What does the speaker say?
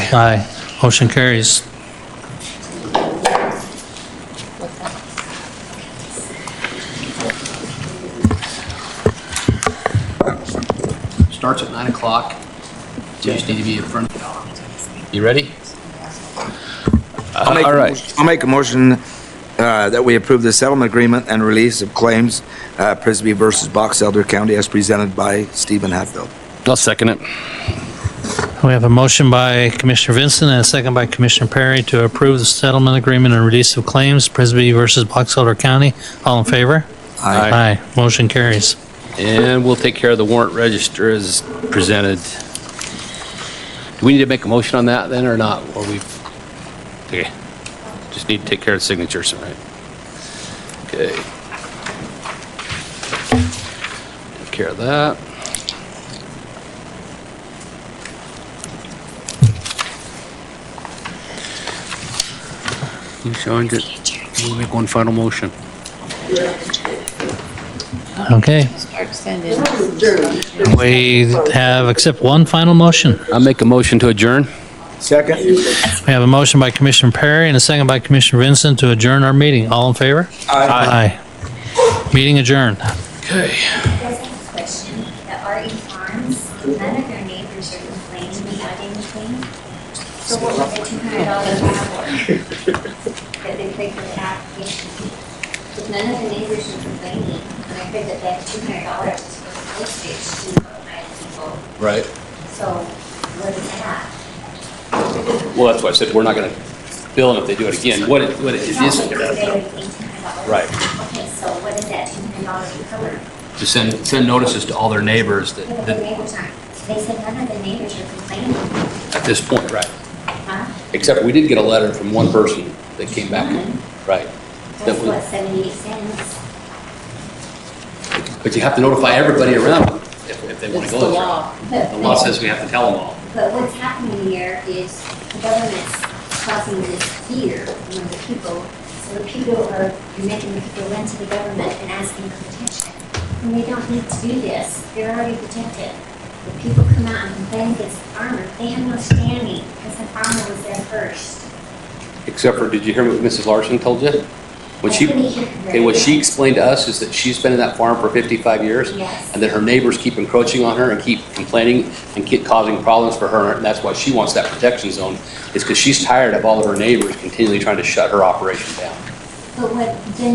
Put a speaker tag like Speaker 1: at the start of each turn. Speaker 1: Aye. Motion carries.
Speaker 2: Starts at nine o'clock. You just need to be in front. You ready?
Speaker 3: I'll make,
Speaker 4: all
Speaker 3: a
Speaker 4: right.
Speaker 3: motion- I'll make a motion uh, that we approve the settlement agreement and release of claims, uh, Prisby versus Box Elder County as presented by Stephen Hatfield.
Speaker 4: I'll second it.
Speaker 1: We have a motion by Commissioner Vincent and a second by Commissioner Perry to approve the settlement agreement and release of claims, Prisby versus Box Elder County. All in favor?
Speaker 3: Aye.
Speaker 1: Aye. Motion carries.
Speaker 4: And we'll take care of the warrant register as presented. Do we need to make a motion on that then or not? Or we, okay, just need to take care of the signatures, all right? Okay. Take care of that. You signed it. We'll make one final motion.
Speaker 1: Okay,
Speaker 5: Start sending.
Speaker 1: we have, except one final motion.
Speaker 4: I make a motion to adjourn.
Speaker 3: Second?
Speaker 1: We have a motion by Commissioner Perry and a second by Commissioner Vincent to adjourn our meeting. All in favor? Aye. Meeting adjourned.
Speaker 6: Yes, I have a question. The RE Farms, none of their neighbors are complaining about anything. So what was the two hundred dollar tab for? That they paid for the application? If none of the neighbors are complaining, and I heard that that two hundred dollars was for the lift station for five people,
Speaker 4: Right.
Speaker 6: so what is that?
Speaker 4: Well, that's why I said we're not going to bill them if they do it again. What it, what it
Speaker 6: Sounds
Speaker 4: is,
Speaker 6: like They already paid two hundred dollars.
Speaker 4: Right.
Speaker 6: Okay, so what is that two hundred dollars cover?
Speaker 2: To send, send notices to all their neighbors that,
Speaker 6: None of the
Speaker 2: that,
Speaker 6: neighbors aren't. They said none of the neighbors are complaining,
Speaker 4: at this point, right.
Speaker 6: huh?
Speaker 4: Except we did get a letter from one person that came back, right.
Speaker 6: That's
Speaker 4: That we-
Speaker 6: what, 78 cents?
Speaker 4: But you have to notify everybody around if, if they want
Speaker 5: It's
Speaker 4: to
Speaker 5: the
Speaker 4: go this route.
Speaker 5: law.
Speaker 4: The law says we have to tell them all.
Speaker 6: But what's happening here is the government's causing this fear among the people. So the people are, you're making the people run to the government and asking for protection. And they don't need to do this. They're already protected. The people come out and complain against the farmer. They have no standing because the farmer was there first.
Speaker 4: Except for, did you hear what Mrs. Larson told you? What she,
Speaker 6: I didn't hear
Speaker 4: okay, what she explained to us is that she's been in that farm for 55 years.
Speaker 6: Yes.
Speaker 4: And that her neighbors keep encroaching on her and keep complaining and keep causing problems for her. And that's why she wants that protection zone, is because she's tired of all of her neighbors continually trying to shut her operation down.
Speaker 6: But what, then